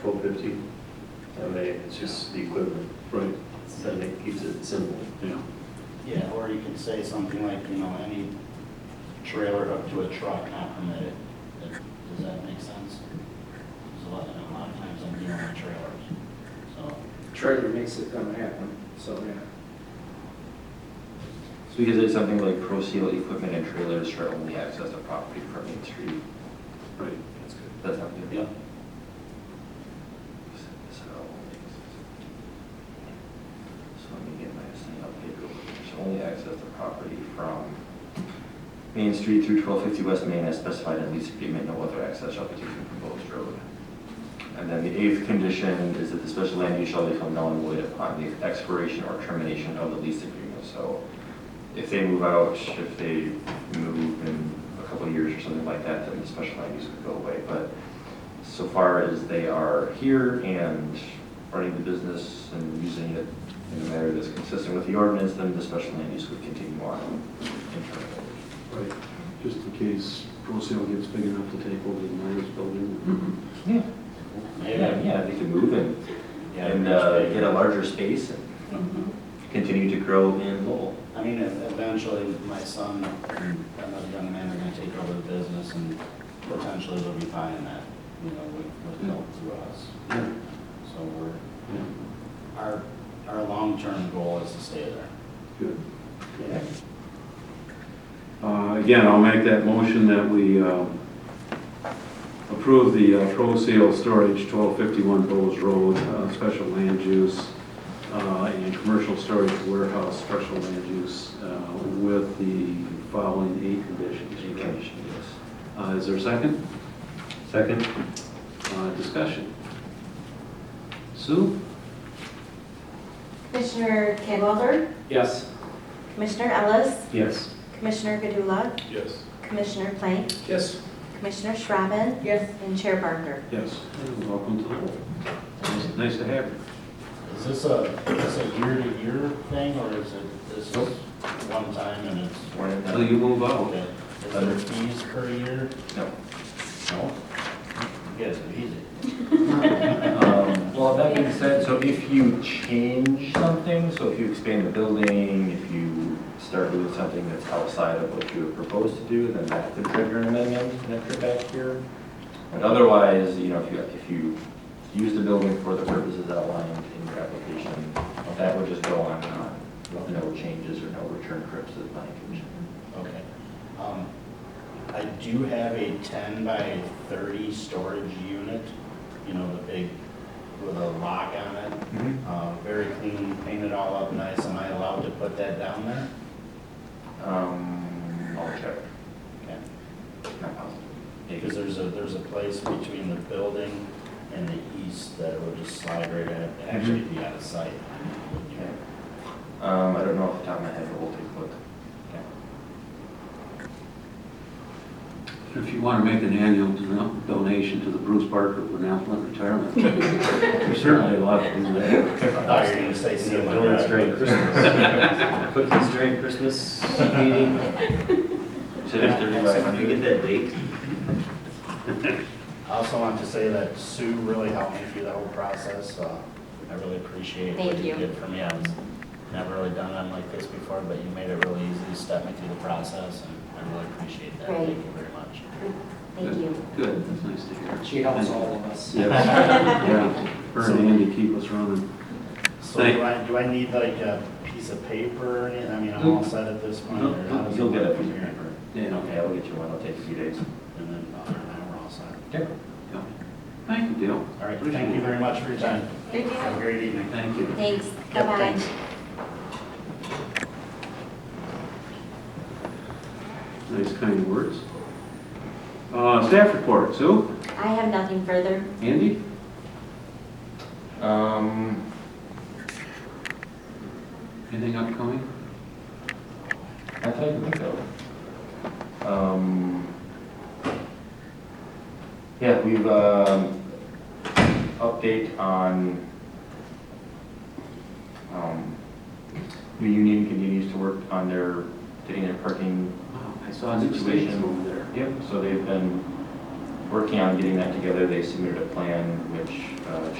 twelve fifty, I mean, it's just the equivalent, Right, then it keeps it simple. yeah. Yeah, or you can say something like, you know, any trailer up to a truck not permitted. That- Does that make sense? There's a lot, a lot of times I'm dealing with trailers, so. Trailer makes it gonna happen, so, yeah. So we could say something like pro seal equipment and trailers shall only access the property from Main Street. Right. That's good. That's not good. Yeah. So, so let me get my thing up here. real quick. Shall only access the property from Main Street through twelve fifty West Main as specified in lease agreement. No other access shall be taken from proposed road. And then the eighth condition is that the special land use shall become null and void upon the expiration or termination of the lease agreement. So if they move out, if they move in a couple of years or something like that, then the special land use would go away. But so far as they are here and running the business and using it in a manner that's consistent with the ordinance, then the special land use would continue on internally. Right. Just in case Pro Sale gets big enough to take over the mayor's Mm-hmm. building. Yeah, yeah, Maybe. yeah, they could move and, Yeah, and uh, get a larger space and Mm-hmm. continue to grow in Lowell. I mean, ev- eventually, my son, another young man, are gonna take over the business and potentially they'll be buying that, you know, with, with help through us. Mm. Yeah, So we're, yeah, our, our long-term goal is to stay there. good. Uh, Again, I'll make that motion that we uh, approve the uh, Pro Sale Storage 1251 Bowles Road, uh, special land use, uh, and commercial storage warehouse, special land use, uh, with the following eight conditions. correct? Condition, yes. Uh, Is there a second? Second? Uh, Discussion. Sue? Commissioner Cadwalder, Yes. Commissioner Ellis, Yes. Commissioner Gadula, Yes. Commissioner Plank, Yes. Commissioner Shrabbin, Yes. and Chair Barker. Yes. And Welcome to the board. Nice- Nice to have you. Is this a, is this a year-to-year thing, or is it, this is one time and it's? One and Until done. you move out. Okay. Is there fees per year? No. No? You guys are easy. Um, Well, that being said, so if you change something, so if you expand the building, if you start doing something that's outside of what you had proposed to do, then that could trigger an amendment, and that could back here. But otherwise, you know, if you, if you use the building for the purposes outlined in your application, that would just go on and on, with no changes or no return trips to the planning commission. Okay. Um, I do have a ten by thirty storage unit, you know, the big, with a lock on it. Uh, very clean, painted all up nice. Am I allowed to put that down there? Um, I'll check, Okay. not positive. Because Maybe. there's a, there's a place between the building and the east that would just slide right in, actually be out of sight. Okay. Um, I don't know off the top of my head, but we'll take a look. Okay. If you want to make an annual don- donation to the Bruce Barker Benevolent Retirement, you're certainly allowed to do that. I thought you were gonna say see my Donuts during Christmas. Cookies during Christmas meeting. So there's thirty-five If you get hundred. that date, I also want to say that Sue really helped me through the whole process. uh, I really appreciate what Thank you you. did for me. I was never really done them like this before, but you made it really easy to step me through the process, and I really appreciate that. Right. Thank you very much. Thank you. Good, that's nice to hear. She helps all of us. Yes. Yeah, her and Andy keep us running. So do I, do I need like a piece of paper or anything? I mean, I'm all set at this point. Nope, or how nope, does it You'll get a work piece from of here? paper. Yeah, Okay, I'll get you one, it'll take a few days. And then, uh, now we're all set. Okay. yeah. Thank you, Dale. All right, thank you very much for your time. Thank Have a great evening. Thank you. Thanks, Yep, bye-bye. thanks. Nice kind words. Uh, Staff report, Sue? I have nothing further. Andy? Um, Anything upcoming? I thought you would go. Um, yeah, we've, um, update on, um, the union continues to work on their, getting their parking Wow, I saw new stations over there. Yep, so they've been working on getting that together. They submitted a plan which uh,